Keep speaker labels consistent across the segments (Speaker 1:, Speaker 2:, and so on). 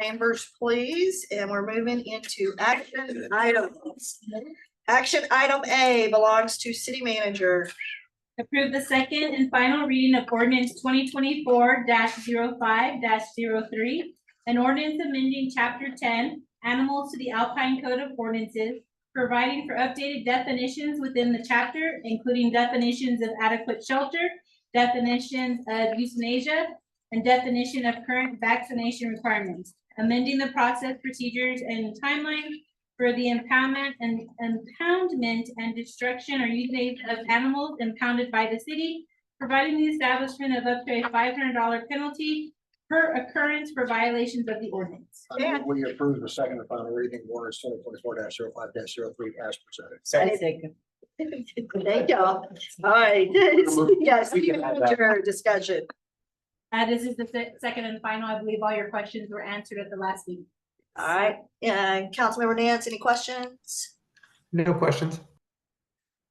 Speaker 1: Chambers, please, and we're moving into action items. Action item A belongs to city manager.
Speaker 2: Approve the second and final reading of ordinance twenty twenty-four 5 3 An ordinance amending chapter ten, animals to the Alpine Code of Ordinances. Providing for updated definitions within the chapter, including definitions of adequate shelter, definitions of euthanasia. And definition of current vaccination requirements, amending the process, procedures and timeline for the impoundment and impoundment and destruction or euthanasia of animals impounded by the city, providing the establishment of up to a five hundred dollar penalty per occurrence for violations of the ordinance.
Speaker 3: I move We approve the second and final reading of ordinance twenty twenty-four oh 5 3 as presented.
Speaker 1: Thank y'all. All right, yes,
Speaker 3: We can have that.
Speaker 1: manager discussion.
Speaker 2: Uh, this is the se- second and final. I believe all your questions were answered at the last meeting.
Speaker 1: All right, and Councilmember Nance, any questions?
Speaker 4: No questions.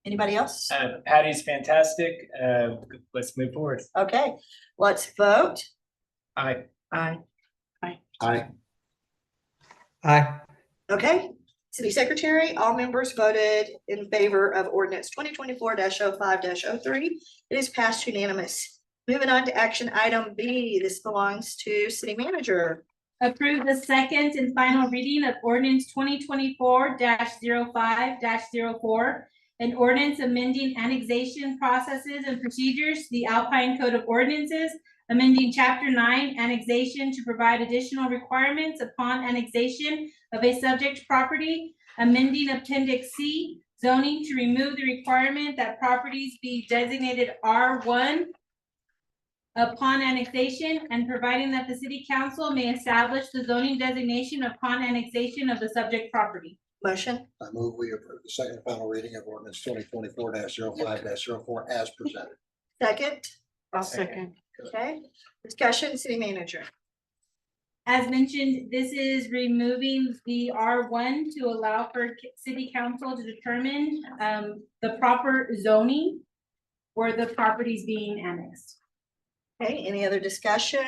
Speaker 1: Anybody else?
Speaker 5: Uh, Patty's fantastic. Uh, let's move forward.
Speaker 1: Okay, let's vote.
Speaker 5: I,
Speaker 1: Aye.
Speaker 3: Aye.
Speaker 4: Aye.
Speaker 1: Okay, city secretary, all members voted in favor of ordinance twenty twenty-four oh 5 3 It is passed unanimous. Moving on to action item B, this belongs to city manager.
Speaker 2: Approve the second and final reading of ordinance twenty twenty-four 5 4 An ordinance amending annexation processes and procedures, to the Alpine Code of Ordinances, amending chapter nine annexation to provide additional requirements upon annexation of a subject property, amending appendix C zoning to remove the requirement that properties be designated R one upon annexation and providing that the city council may establish the zoning designation upon annexation of the subject property.
Speaker 1: Motion,
Speaker 3: I move we approve the second and final reading of ordinance twenty twenty-four oh 5 4 as presented.
Speaker 1: second,
Speaker 6: I'll
Speaker 5: second.
Speaker 6: second.
Speaker 1: okay? Discussion, city manager.
Speaker 2: As mentioned, this is removing the R one to allow for c- city council to determine um the proper zoning where the property is being annexed.
Speaker 1: Okay, any other discussion?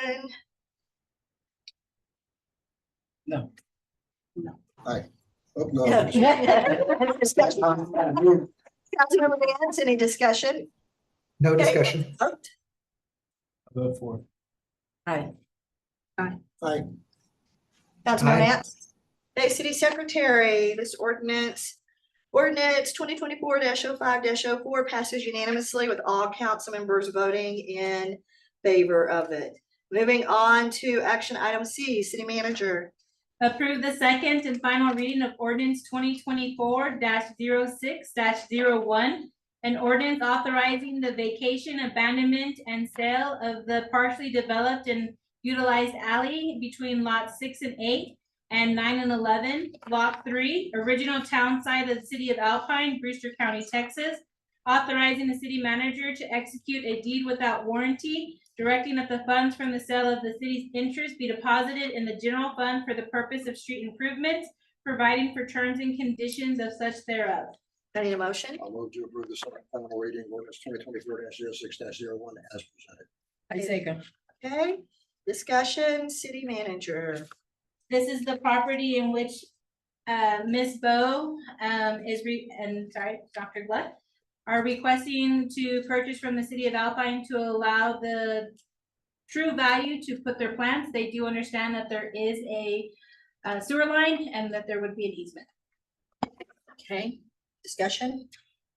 Speaker 5: no,
Speaker 3: Oh, no.
Speaker 1: Discussion.
Speaker 3: I
Speaker 1: Councilmember Nance, any discussion?
Speaker 4: No
Speaker 1: Okay.
Speaker 4: discussion.
Speaker 1: Vote.
Speaker 5: I'll vote for.
Speaker 1: Councilmember
Speaker 4: Aye.
Speaker 1: Nance. Okay, city secretary, this ordinance, ordinance twenty twenty-four oh 5 4 passes unanimously with all council members voting in favor of it. Moving on to action item C, city manager.
Speaker 2: Approve the second and final reading of ordinance twenty twenty-four 6 one An ordinance authorizing the vacation, abandonment, and sale of the partially developed and utilized alley between lots six and eight and nine and eleven, lot three, original town site of the city of Alpine, Brewster County, Texas. Authorizing the city manager to execute a deed without warranty directing that the funds from the sale of the city's interest be deposited in the general fund for the purpose of street improvements, providing for terms and conditions of such thereof.
Speaker 1: I need a motion.
Speaker 3: move to approve the second and final reading of ordinance twenty twenty-four oh 6 one as presented.
Speaker 6: I second.
Speaker 1: Okay, discussion, city manager.
Speaker 2: This is the property in which uh Ms. Bo um is re, and sorry, Dr. Glut are requesting to purchase from the city of Alpine to allow the true value to put their plants. They do understand that there is a uh, sewer line and that there would be an easement.
Speaker 1: Okay, discussion.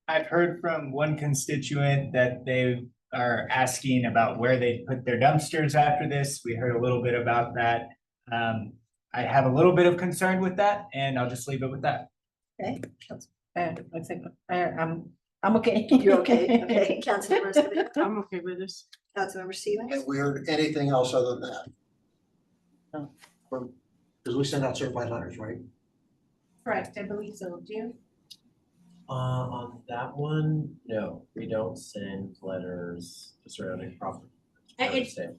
Speaker 5: I've heard from one constituent that they are asking about where they put their dumpsters after this. We heard a little bit about that. Um, I have a little bit of concern with that and I'll just leave it with that.
Speaker 1: Okay,
Speaker 2: Eh,
Speaker 6: Uh, I second. Uh, I'm, I'm okay.
Speaker 1: you're okay. Okay, Councilmember, Simmons,
Speaker 6: I'm okay with this.
Speaker 1: Councilmember Stevens.
Speaker 3: Have we heard anything else other than that?
Speaker 6: No.
Speaker 3: From, because we send out certified letters, right?
Speaker 2: Correct, I believe so. Do you?
Speaker 7: Uh, on that one, no, we don't send letters to surrounding property.
Speaker 2: Uh,
Speaker 7: I would
Speaker 2: it's-
Speaker 7: say.